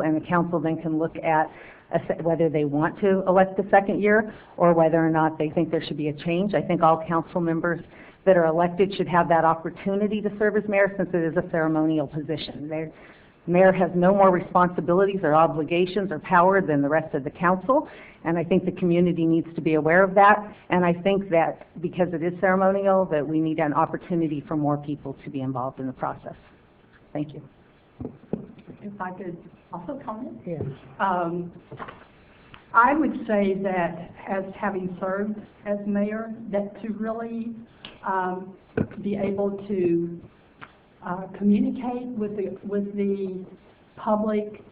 and the council then can look at a se- whether they want to elect the second year or whether or not they think there should be a change. I think all council members that are elected should have that opportunity to serve as mayor since it is a ceremonial position. They're, Mayor has no more responsibilities or obligations or power than the rest of the council, and I think the community needs to be aware of that. And I think that because it is ceremonial, that we need an opportunity for more people to be involved in the process. Thank you. If I could also comment? Yes. Um, I would say that as having served as mayor, that to really um, be able to uh, communicate with the, with the public,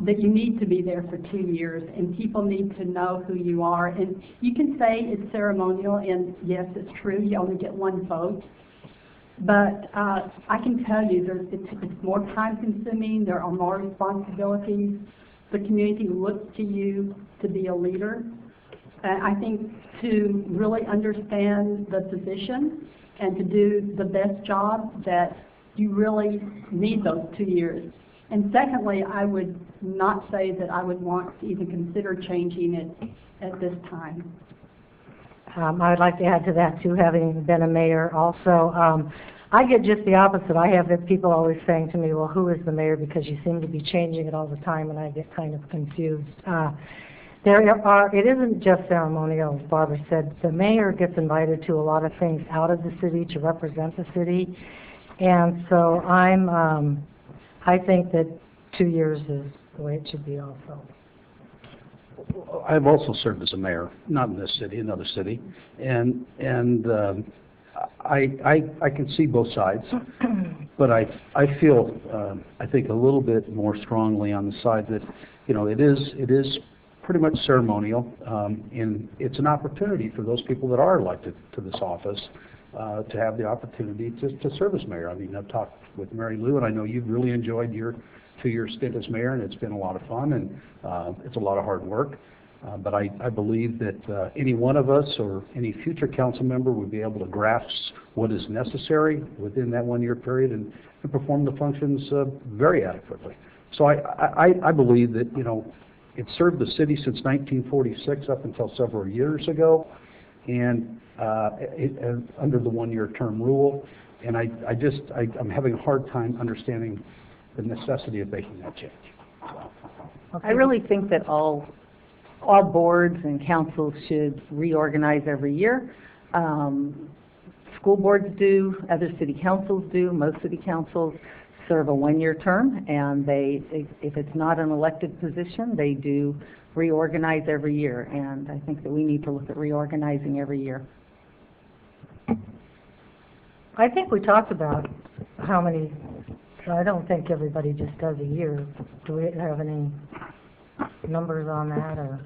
that you need to be there for two years, and people need to know who you are. And you can say it's ceremonial, and yes, it's true, you only get one vote, but uh, I can tell you, there's, it's it's more time-consuming, there are more responsibilities. The community looks to you to be a leader. And I think to really understand the position and to do the best job, that you really need those two years. And secondly, I would not say that I would want to even consider changing it at this time. Um, I would like to add to that too, having been a mayor also. Um, I get just the opposite. I have the people always saying to me, well, who is the mayor? Because you seem to be changing it all the time and I get kind of confused. Uh, there are, it isn't just ceremonial, as Barbara said. The mayor gets invited to a lot of things out of the city to represent the city. And so I'm, um, I think that two years is the way it should be also. I've also served as a mayor, not in this city, another city, and, and um, I, I, I can see both sides, but I, I feel, um, I think a little bit more strongly on the side that, you know, it is, it is pretty much ceremonial, um, and it's an opportunity for those people that are elected to this office uh, to have the opportunity to, to serve as mayor. I mean, I've talked with Mary Lou, and I know you've really enjoyed your two-year stint as mayor, and it's been a lot of fun, and uh, it's a lot of hard work. Uh, But I, I believe that uh, any one of us or any future council member would be able to grasp what is necessary within that one-year period and, and perform the functions uh, very adequately. So I, I, I- I believe that, you know, it served the city since 1946 up until several years ago, and uh, it- it- under the one-year term rule. And I I just, I- I'm having a hard time understanding the necessity of making that change. I really think that all, all boards and councils should reorganize every year. Um, School boards do, other city councils do, most city councils serve a one-year term, and they, if it's not an elected position, they do reorganize every year, and I think that we need to look at reorganizing every year. I think we talked about how many, I don't think everybody just does a year. Do we have any numbers on that, or?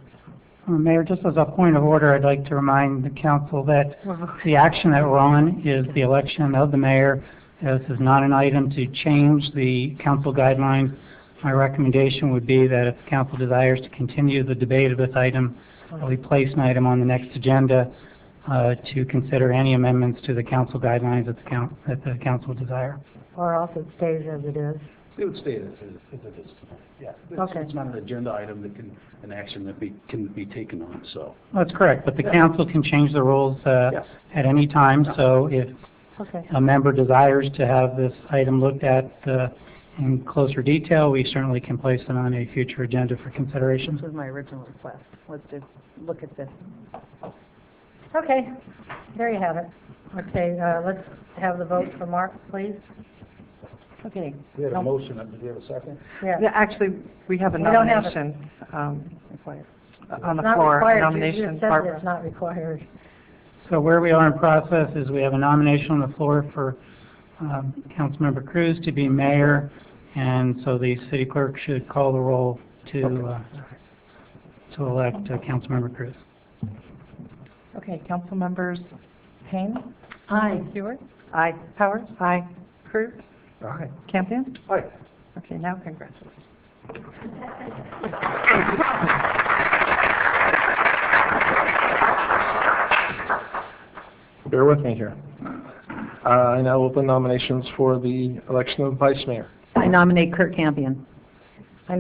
Uh, Mayor, just as a point of order, I'd like to remind the council that the action that we're on is the election of the mayor. This is not an item to change the council guidelines. My recommendation would be that if the council desires to continue the debate of this item, that we place an item on the next agenda uh, to consider any amendments to the council guidelines that the coun- that the council desire. Or else it stays as it is? It would stay as it as it is. Yeah. It's- Okay. It's not an agenda item that can, an action that be, can be taken on, so. That's correct, but the council can change the rules uh, Yes. at any time, so if Okay. a member desires to have this item looked at uh, in closer detail, we certainly can place it on a future agenda for This consideration. was my original request, was to look at this. Okay, there you have it. Okay, uh, let's have the vote for Mark, please. Okay. We had a motion, do we have a second? Yeah. Yeah, Actually, we have a We don't have it. nomination um, on It's the not floor, a required. You- You nomination. just said that Barbara. it's not required. So where we are in process is we have a nomination on the floor for um, Councilmember Cruz to be mayor, and so the city clerk should call the roll to, uh, to elect uh, Councilmember Cruz. Okay, council members Payne, Aye. Stewart, Aye. Powers. Aye. Cruz, All right. Campion. All right. Okay, now congratulations. Bear with me here. Uh, I now open nominations for the election of vice mayor. I nominate Kurt Campion.